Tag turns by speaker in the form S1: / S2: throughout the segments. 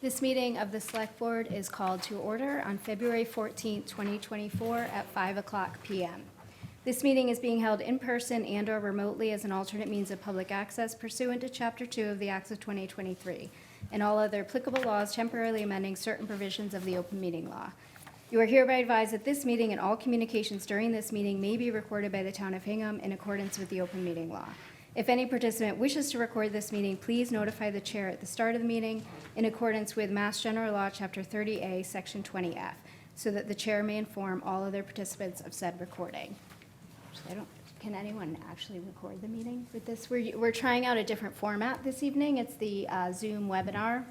S1: This meeting of the Select Board is called to order on February 14, 2024, at 5 o'clock PM. This meeting is being held in person and/or remotely as an alternate means of public access pursuant to Chapter 2 of the Acts of 2023 and all other applicable laws temporarily amending certain provisions of the open meeting law. You are hereby advised that this meeting and all communications during this meeting may be recorded by the Town of Hingham in accordance with the open meeting law. If any participant wishes to record this meeting, please notify the chair at the start of the meeting in accordance with Mass General Law, Chapter 30A, Section 20F, so that the chair may inform all other participants of said recording. Actually, I don't, can anyone actually record the meeting with this? We're, we're trying out a different format this evening. It's the uh, Zoom webinar.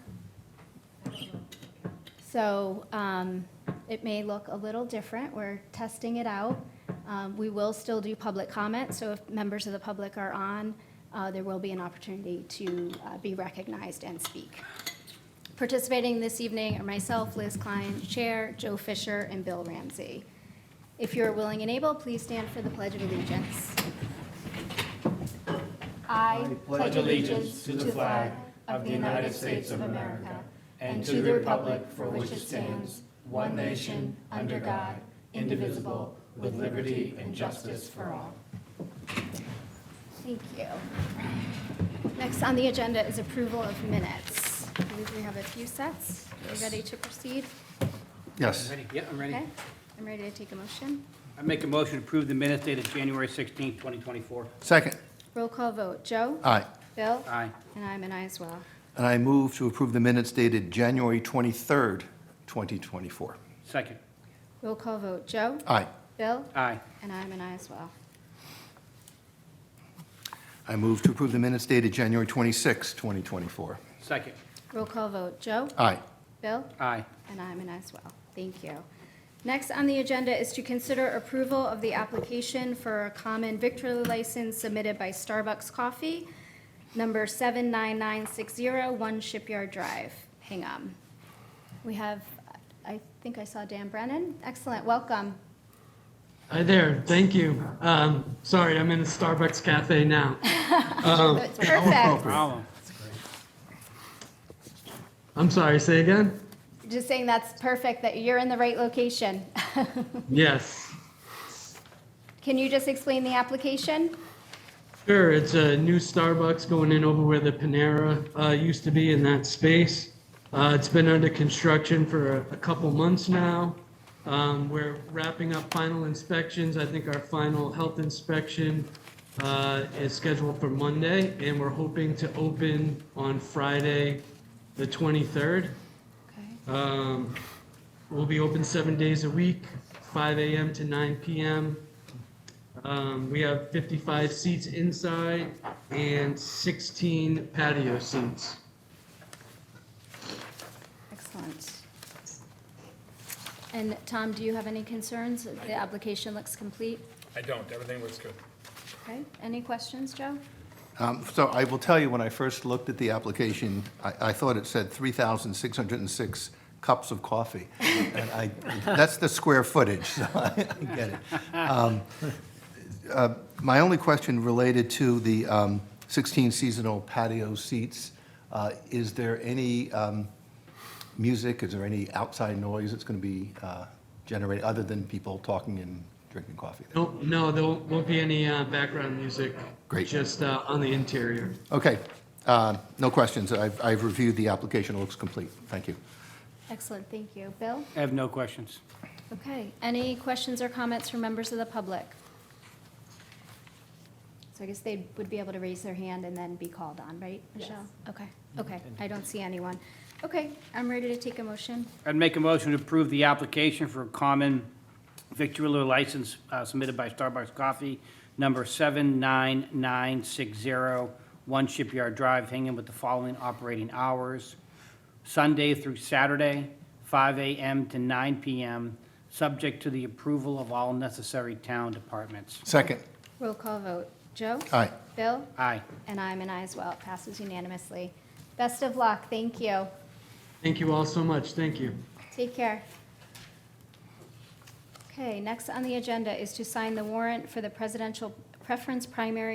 S1: So um, it may look a little different. We're testing it out. Um, We will still do public comment, so if members of the public are on, uh, there will be an opportunity to uh, be recognized and speak. Participating this evening are myself, Liz Klein, Chair, Joe Fisher, and Bill Ramsey. If you're willing and able, please stand for the Pledge of Allegiance. I pledge allegiance to the flag of the United States of America and to the republic for which it stands, one nation, under God, indivisible, with liberty and justice for all. Thank you. Next on the agenda is approval of minutes. I believe we have a few sets. Are you ready to proceed?
S2: Yes.
S3: Ready? Yeah, I'm ready.
S1: Okay, I'm ready to take a motion.
S3: I make a motion to approve the minutes dated January 16, 2024.
S2: Second.
S1: Roll call vote. Joe?
S2: Aye.
S1: Bill?
S3: Aye.
S1: And I'm an aye as well.
S2: And I move to approve the minutes dated January 23rd, 2024.
S3: Second.
S1: Roll call vote. Joe?
S2: Aye.
S1: Bill?
S3: Aye.
S1: And I'm an aye as well.
S2: I move to approve the minutes dated January 26th, 2024.
S3: Second.
S1: Roll call vote. Joe?
S2: Aye.
S1: Bill?
S3: Aye.
S1: And I'm an aye as well. Thank you. Next on the agenda is to consider approval of the application for a common victory license submitted by Starbucks Coffee, number 79960, One Shipyard Drive, Hingham. We have, I think I saw Dan Brennan. Excellent, welcome.
S4: Hi there, thank you. Um, sorry, I'm in a Starbucks cafe now.
S1: That's perfect.
S3: Problem.
S4: I'm sorry, say again?
S1: Just saying that's perfect, that you're in the right location.
S4: Yes.
S1: Can you just explain the application?
S4: Sure, it's a new Starbucks going in over where the Panera uh, used to be in that space. Uh, it's been under construction for a, a couple months now. Um, we're wrapping up final inspections. I think our final health inspection uh, is scheduled for Monday, and we're hoping to open on Friday, the 23rd. Um, We'll be open seven days a week, 5 AM to 9 PM. Um, We have 55 seats inside and 16 patio seats.
S1: Excellent. And Tom, do you have any concerns? The application looks complete.
S5: I don't, everything looks good.
S1: Okay, any questions, Joe?
S2: Um, So I will tell you, when I first looked at the application, I, I thought it said 3,606 cups of coffee. And I, that's the square footage, so I get it. Um, uh, My only question related to the um, 16 seasonal patio seats, uh, is there any um, music, is there any outside noise that's going to be uh, generated, other than people talking and drinking coffee? there?
S4: No, no, there won't won't be any uh, background music.
S2: Great.
S4: Just uh, on the interior.
S2: Okay, uh, no questions. I've I've reviewed the application, it looks complete. Thank you.
S1: Excellent, thank you. Bill?
S3: I have no questions.
S1: Okay, any questions or comments from members of the public? So I guess they would be able to raise their hand and then be called on, right, Michelle? Mm-hmm. Okay, okay, I don't see anyone. Okay, I'm ready to take a motion.
S3: I'd make a motion to approve the application for a common victualler license uh, submitted by Starbucks Coffee, number 79960, One Shipyard Drive, Hingham, with the following operating hours: Sunday through Saturday, 5 a.m. to 9 p.m., subject to the approval of all necessary town departments.
S2: Second.
S1: Roll call vote. Joe?
S2: Aye.
S1: Bill?
S3: Aye.
S1: And I'm an aye as well. It passes unanimously. Best of luck. Thank you.
S4: Thank you all so much, thank you.
S1: Take care. Okay, next on the agenda is to sign the warrant for the presidential preference primary